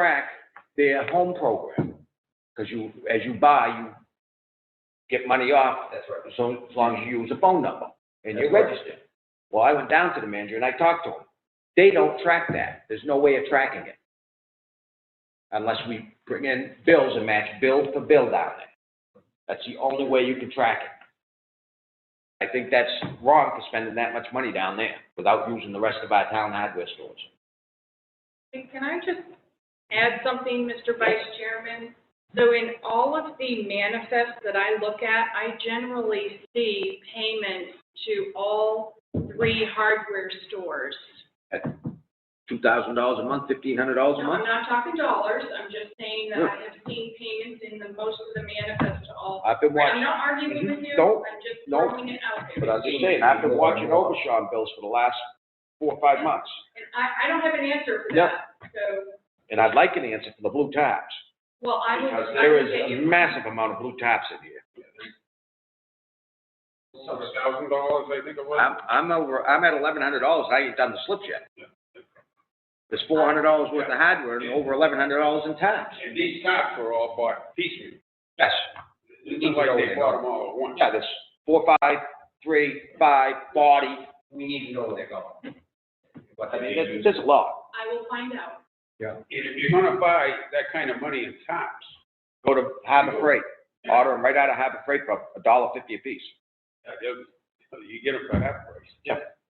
track their home program. Because you, as you buy, you get money off, That's right. so as long as you use a phone number and you're That's right. registered. Well, I went down to the manager and I talked to him. They don't track that. There's no way of tracking it. Unless we bring in bills and match bill for bill down there. That's the only way you can track it. I think that's wrong for spending that much money down there without using the rest of our town hardware stores. And Can I just add something, Mr. Vice Chairman? So in all of the manifests that I look at, I generally see payments to all three hardware stores. Two thousand dollars a month, fifteen hundred dollars a No, I'm month? not talking dollars, I'm just saying that I have seen payments in the, most of the manifests to all. I've been I'm watching, not arguing with you, Don't- I'm just don't. throwing it out there. but I was just saying, I've been watching Obashan bills for the last four or five months. And I, I don't have an answer for No. that, so, And I'd like an answer for the blue tabs. well, I would. Because I there would say is a you- massive amount of blue taps in here. Thousand dollars, I think it was. I'm, I'm over, I'm at eleven hundred dollars, I ain't done the slip yet. There's four hundred dollars worth of hardware and over eleven hundred dollars in taps. And these tops were all bought piecemeal. Yes. It's not like they bought them all at once. Yeah, there's four, five, three, five, forty, we need to know where they're Hmm. going. What I mean, they there's, use. there's a lot. I will find out. And if you're gonna buy that kind of money in tops, Go to Harbor Freight, order them right out of Harbor Freight for a dollar fifty apiece. uh, you you get them for that price. Yeah.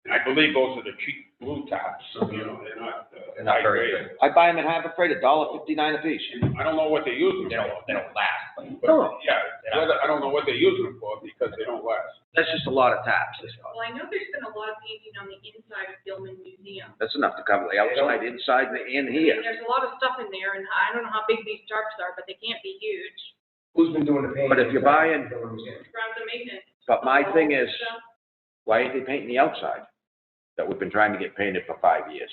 And I believe those are the cheap blue tops, you know, they're not. uh, They're not very high-grade. good. I buy them at Harbor Freight, a dollar fifty-nine apiece. I don't know what they use them They don't, for. they don't last, but but, Yeah, whether- I don't know what they use them for because they don't last. That's just a lot of taps, that's all. Well, I know there's been a lot of painting on the inside of Gilman Museum. That's enough to cover the outside, inside, and in I mean, here. There's a lot of stuff in there, and I don't know how big these tarps are, but they can't be huge. who's been doing the painting? But if you're buying- Ground to maintenance. But my thing is, Stuff. why ain't they painting the outside? That we've been trying to get painted for five years.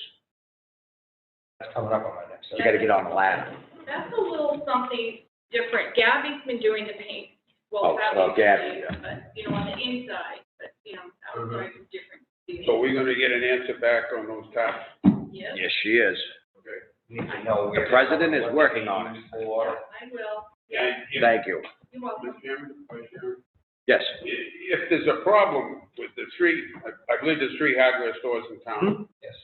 That's coming up on my next. You gotta get on the ladder. That's a little something different. Gabby's been doing the paint. Oh, Well, that well, was Gabby, great, But, you know, on the inside, but, you know, that was very different. So we're gonna get an answer back on those tops. Yes, Yes, she is. We need to know where. The president is what working they on use yeah, For, I will. Yeah, And if- Thank you. you're welcome. Mr. Chairman, Vice Chairman, Yes. if there's a problem with the three, I I believe there's three hardware stores in Hmm? town. yes,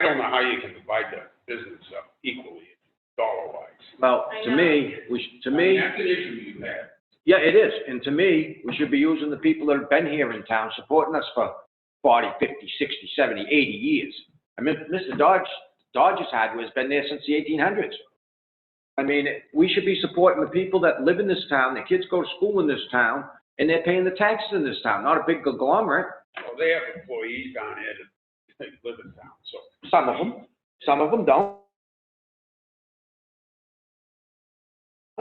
I don't know how you can divide the business up equally, dollar-wise. Well, to me, we, sh- to me, That's an issue you have. yeah, it is. And to me, we should be using the people that have been here in town, supporting us for 40, 50, 60, 70, 80 years. I mean, Mr. Dodge, Dodge's hardware's been there since the 1800s. I mean, we should be supporting the people that live in this town, their kids go to school in this town, and they're paying the taxes in this town, not a big conglomerate. Well, they have employees down there that that live in town, so. Some of them, some of them don't.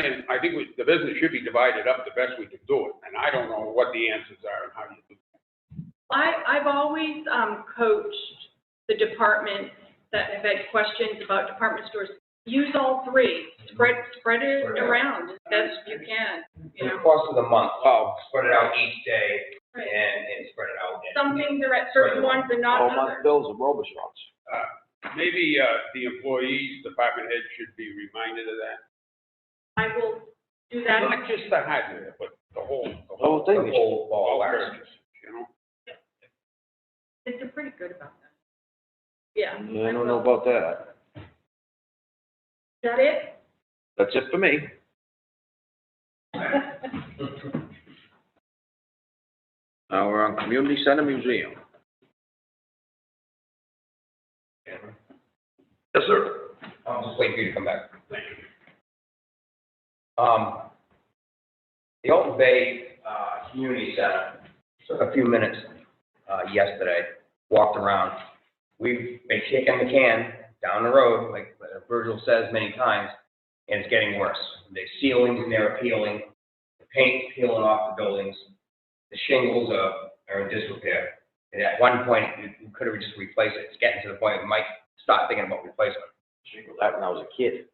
And I think we- the business should be divided up the best we can do it, and I don't know what the answers are and how you do. it. I, I've always, um, coached the departments that have had questions about department stores. Use all three, spread, spread it around as best you can, you in the know. course of the month, Oh, spread it out each day Right. and, and spread it out. Some things are at certain ones and all not month others. bills are Robichauds. Maybe uh, the employees, department head should be reminded of that. I will do that. Not just the hardware, but the whole, the The whole whole, thing The is, whole ball all of wax. purchase, you know? They're pretty good about that. Yeah. I don't know about that. Is that it? That's it for me. Hmm. Now we're on Community Center Museum. Yes, sir. I'm just waiting for you to come back. Um, the Alton Bay, uh, Community Center, took a few minutes, uh, yesterday, walked around. We've been kicking the can down the road, like Virgil says many times, and it's getting worse. The ceilings in there are peeling, the paint's peeling off the buildings, the shingles are, are in disrepair. And at one point, we could have just replaced it. It's getting to the point, we might start thinking about replacement. That when I was a kid.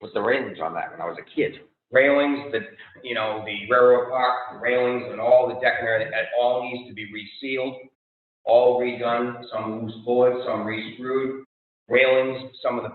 With the railings on that when I was a kid. railings, the, you know, the railroad park railings and all the deck and everything, that all needs to be resealed, all redone, some loose boards, some re-screwed, railings, some of the